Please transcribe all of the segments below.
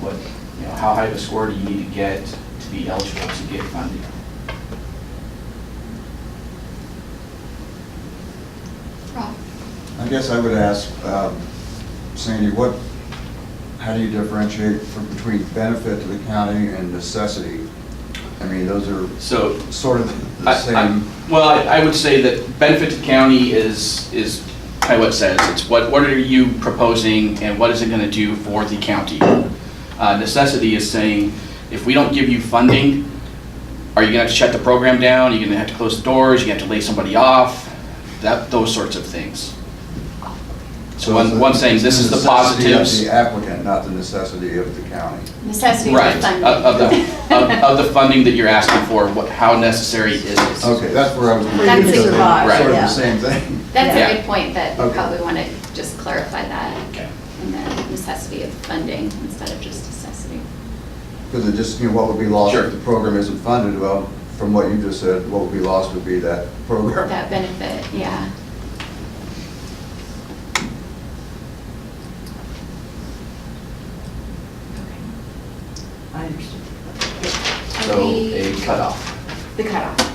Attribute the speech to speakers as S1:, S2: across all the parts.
S1: but, you know, how high of a score do you need to get to be eligible to get funding?
S2: Rob?
S3: I guess I would ask um, Sandy, what, how do you differentiate from- between benefit to the county and necessity? I mean, those are
S1: So
S3: sort of the
S1: I- I-
S3: same.
S1: Well, I I would say that benefit to the county is, is kind of what it says. It's what, what are you proposing and what is it going to do for the county? Uh, Necessity is saying, if we don't give you funding, are you going to have to shut the program down? Are you going to have to close the doors? You have to lay somebody off? That, those sorts of things. So one, one saying, this is the
S3: necessity of
S1: positives.
S3: The applicant, not the necessity of the county.
S2: Necessity for
S1: Right,
S2: funding.
S1: of of the, of of the funding that you're asking for, what, how necessary is it?
S3: Okay, that's where I was.
S4: That's
S3: because they're
S4: supervised,
S3: Sort of
S4: yeah.
S3: the same thing.
S2: That's
S1: Yeah.
S2: a good point, that we
S3: Okay.
S2: probably want to just clarify that
S1: Okay.
S2: and the necessity of funding instead of just necessity.
S3: Because it just, you know, what would be lost
S1: Sure.
S3: if the program isn't funded? Well, from what you just said, what would be lost would be that program.
S2: That benefit, yeah.
S4: I understand.
S1: So a cutoff.
S2: The cutoff.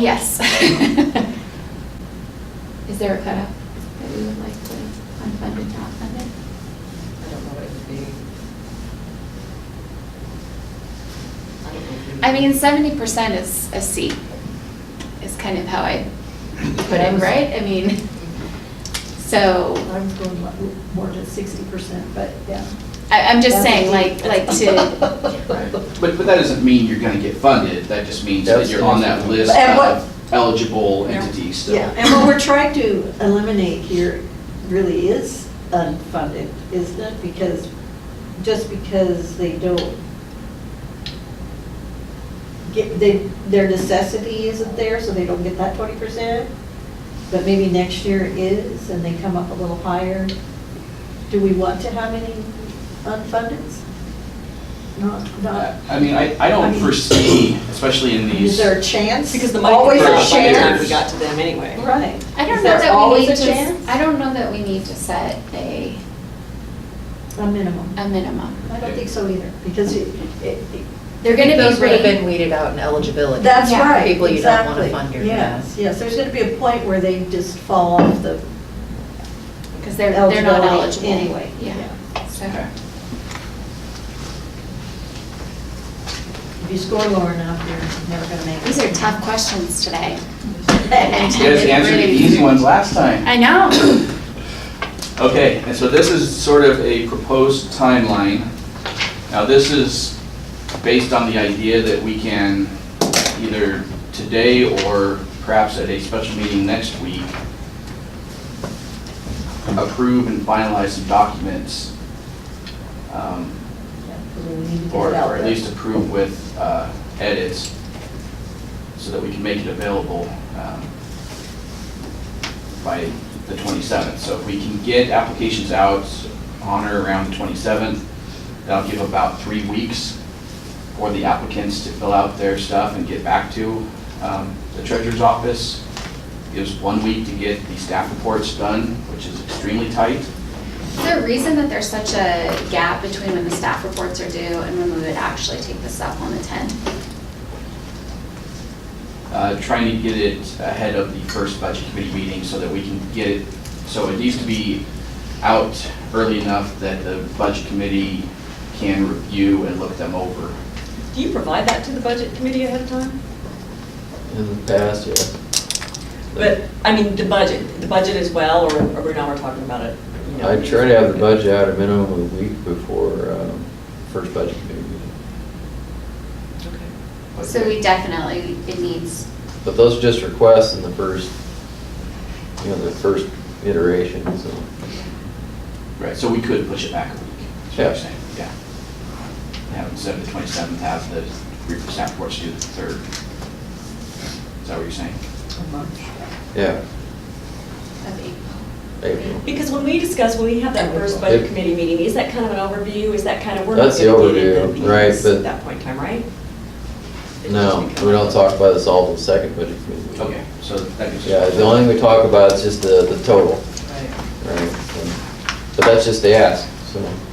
S2: yes. Is there a cutoff that we would like to unfunded, not funded?
S4: I don't know what it would be.
S2: I mean, seventy percent is a C, is kind of how I put it, right? I mean, so,
S5: I was going li- more to sixty percent, but yeah.
S2: I, I'm just saying, like, like to,
S1: But, but that doesn't mean you're gonna get funded, that just means that you're on that list
S5: And what-
S1: of eligible entities
S5: Yeah,
S1: still.
S5: and what we're trying to eliminate here really is unfunded, isn't it? Because, just because they don't get, they, their necessity isn't there, so they don't get that twenty percent, but maybe next year it is, and they come up a little higher. Do we want to have any unfundeds? Not, not.
S1: I mean, I, I
S5: I
S1: don't
S5: mean-
S1: foresee, especially in
S5: Is
S1: these,
S5: there a chance?
S4: Because the money
S5: Always
S4: comes
S1: could
S5: a
S1: out
S4: out by the time
S1: shares.
S4: we
S5: chance.
S4: got to them anyway.
S5: Right.
S2: I don't
S5: Is
S2: know
S5: there
S2: that we
S5: always
S2: need to,
S5: a
S2: s-
S5: chance?
S2: I don't know that we need to set a,
S5: A minimum.
S2: a minimum.
S5: I don't think so either, because it, it,
S2: They're gonna
S6: Those
S2: be
S6: would have been
S2: rated,
S6: weeded out in eligibility.
S5: that's
S2: Yeah.
S5: right, exactly.
S6: People you don't want to fund your.
S5: Yes, yes, there's gonna be a point where they just fall off the
S2: because they're, they're not
S5: eligibility
S2: eligible.
S5: anyway.
S2: Yeah, so,
S1: okay,
S5: If you score lower enough, you're never gonna make it.
S2: these are tough questions today.
S1: you guys answered the easy ones last time.
S2: I know.
S1: Okay, and so this is sort of a proposed timeline. Now, this is based on the idea that we can either today or perhaps at a special meeting next week, approve and finalize some documents um,
S5: Yeah, 'cause we need to get
S1: or
S5: it out
S1: or at
S5: there.
S1: least approve with uh, edits, so that we can make it available um, by the 27th. So if we can get applications out on or around the 27th, that'll give about three weeks for the applicants to fill out their stuff and get back to um, the treasurer's office. Gives one week to get the staff reports done, which is extremely tight.
S2: Is there a reason that there's such a gap between when the staff reports are due and when we would actually take this up on the 10th?
S1: uh, trying to get it ahead of the first budget committee meeting so that we can get it, so it needs to be out early enough that the budget committee can review and look them over.
S4: Do you provide that to the budget committee ahead of time?
S7: In the past, yeah.
S4: But, I mean, the budget, the budget as well, or or now we're talking about it, you know?
S7: I try to have the budget out a minimum of a week before um, first budget committee meeting.
S4: Okay.
S1: But-
S2: So we definitely, it needs,
S7: But those are just requests in the first, you know, the first iteration, so.
S1: Right, so we could push it back a week, is what
S7: Yeah.
S1: you're saying, yeah. And Have it set the twenty-seventh, have the three staff reports due the third. Is that what you're saying?
S5: A month.
S7: Yeah,
S2: of April.
S7: April.
S4: Because when we discuss, when we have that first budget
S7: Yep.
S4: committee meeting, is that kind of an overview? Is that kind of, we're not
S7: That's the
S4: gonna get
S7: overview,
S4: into the
S7: right,
S4: meetings
S7: but-
S4: At that point in time, right?
S7: No, we don't talk about this all in the second budget committee meeting.
S1: Okay, so that gives. us-
S7: Yeah, the only thing we talk about is just the, the total,
S4: Right.
S7: right? And- But that's just the ask, so.